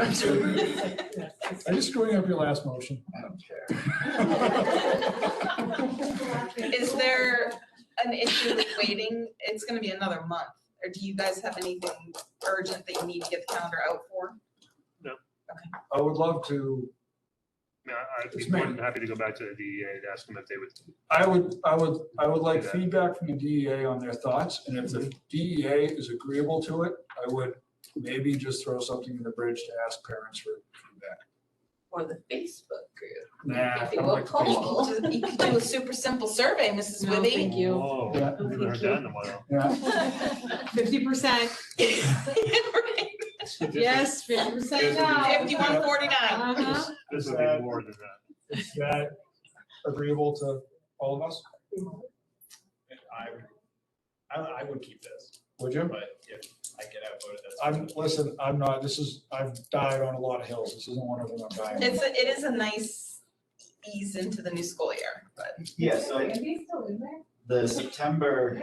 I'm sorry. just screwing up your last motion. I don't care. Is there an issue with waiting? It's gonna be another month. Or do you guys have anything urgent that you need to get the calendar out for? I would love to, No, I'd be It's more than happy to go back to the DEA to ask them if they would, I would, I would, I would like Yeah. feedback from the DEA on their thoughts, and if the DEA is agreeable to it, I would maybe just throw something in the bridge to ask parents for feedback. Or the Facebook group. Nah, I People don't like call. Facebook. You could do- you could do a super simple survey, Mrs. No, Wibby. thank you. oh, I Yeah. haven't heard that in a while. Yeah, Fifty percent, yes, fifty percent now. Fifty-one forty-nine. Uh-huh. This would be more than uh, that. is that agreeable to all of us? I would, I, I would keep this, Would you? but if I get outvoted, that's. I'm, listen, I'm not, this is, I've died on a lot of hills, this isn't one of them I'm dying. on. It's, a- it is a nice ease into the new school year, but Yeah, so the September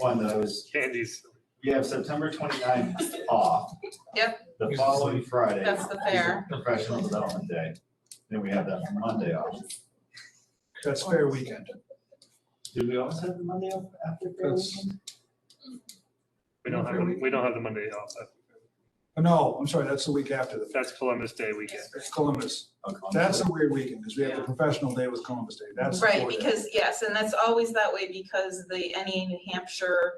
one that I was, Candies, we have September 29th off. Yep. The following Friday. that's the fair. is Professional Development Day, then we have that Monday off. That's fair weekend. Did we always have the Monday off after Fair That's- Weekend? we don't have, the- we don't have the Monday off. No, I'm sorry, that's the week after the, That's Columbus Day weekend. it's Columbus. Oh, Columbus That's Day. a weird weekend, because we have the professional day with Columbus Day, that's. the Right, four day. because, yes, and that's always that way because the NEA New Hampshire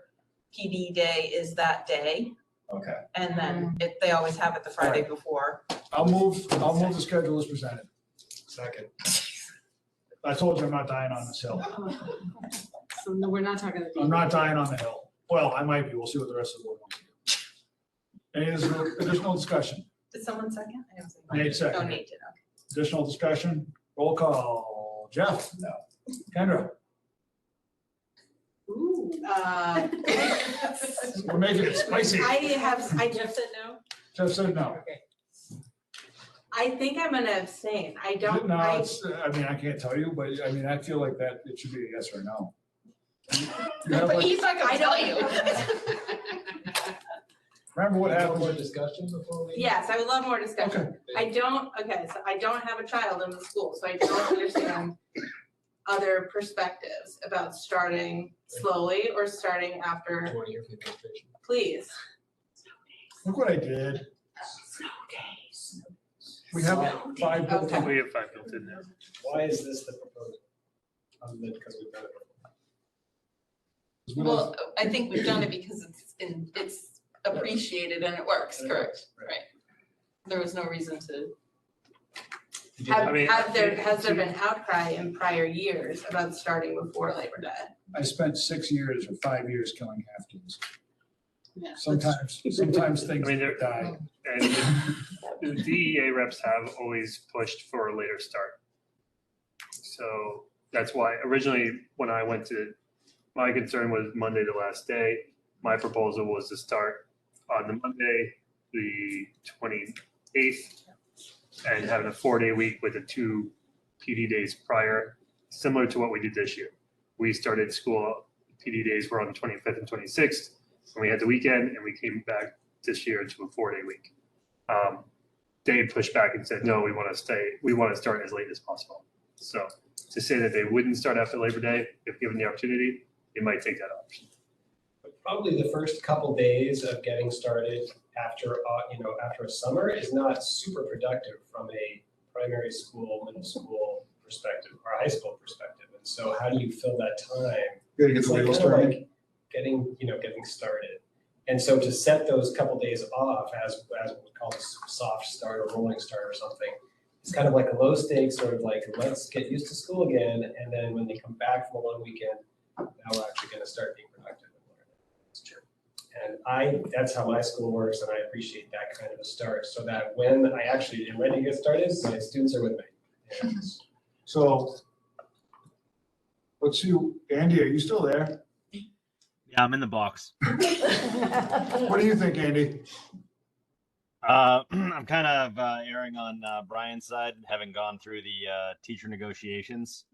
PD day is that day. Okay, And then it, they always have it the Friday before. I'll move, I'll move the schedule as presented. Second. I told you I'm not dying on this hill. So no, we're not talking. to I'm not dying on the hill. Well, I might be, we'll see what the rest of the board wants to do. Any additional- additional discussion? Did someone second? I didn't see one. Nate No, second. Nate did, okay. Additional discussion? Roll call. Jeff? no. Kendra? Ooh. Oh, Uh, We're making it spicy. I have, I just said no. Jeff said no. I think I'm gonna abstain. I don't, No, I, it's, I mean, I can't tell you, but I mean, I feel like that, it should be a yes or a no. You have But like- he's not gonna I tell you. Remember what happened More with discussion before we? yes, I would love more discussion. Okay, I don't, okay, so I don't have a child in the school, so I don't understand other perspectives about starting slowly or starting after, Twenty year vacation. please. look what I did. We have five people. Okay. We have five built in there. Why is this the proposal? Other than because we've done it before. Well, I think we've done it because it's been, it's appreciated and it works, correct? Right. There was no reason to. Have, I mean, have there, has there been outcry in prior years about starting before Labor Day? I spent six years or five years killing half-kids. Yeah. Sometimes, sometimes things I mean, they're- die. And the- the DEA reps have always pushed for a later start. So that's why originally, when I went to, my concern was Monday the last day. My proposal was to start on the Monday, the twenty-eighth, and having a four-day week with the two PD days prior, similar to what we did this year. We started school, PD days were on the twenty-fifth and twenty-sixth, and we had the weekend, and we came back this year to a four-day week um, they pushed back and said, no, we want to stay, we want to start as late as possible. So to say that they wouldn't start after Labor Day, if given the opportunity, they might take that option. But Probably the first couple days of getting started after, au- you know, after a summer is not super productive from a primary school, middle school perspective, or high school perspective. And so how do you fill that time Gotta get It's like kind of like getting, you know, getting started. And so to set those couple days off as, as what we call a s- soft start or rolling start or something, it's kind of like a low stakes, sort of like, let's get used to school again, and then when they come back from a long weekend, now we're actually gonna start being productive and learning. It's true. And I, that's how my school works, and I appreciate that kind of a start, so that when I actually am ready to get started, my students are with me. And So, let's see, Andy, are you still there? Yeah, I'm in the box. What do you think, Andy? Uh, I'm kind of uh, erring on uh, Brian's side, having gone through the uh, teacher negotiations.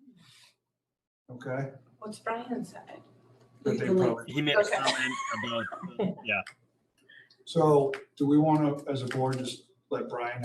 Okay. What's Brian's side? That they probably- He made Okay. a comment about So, do we want to, as a board, just let Brian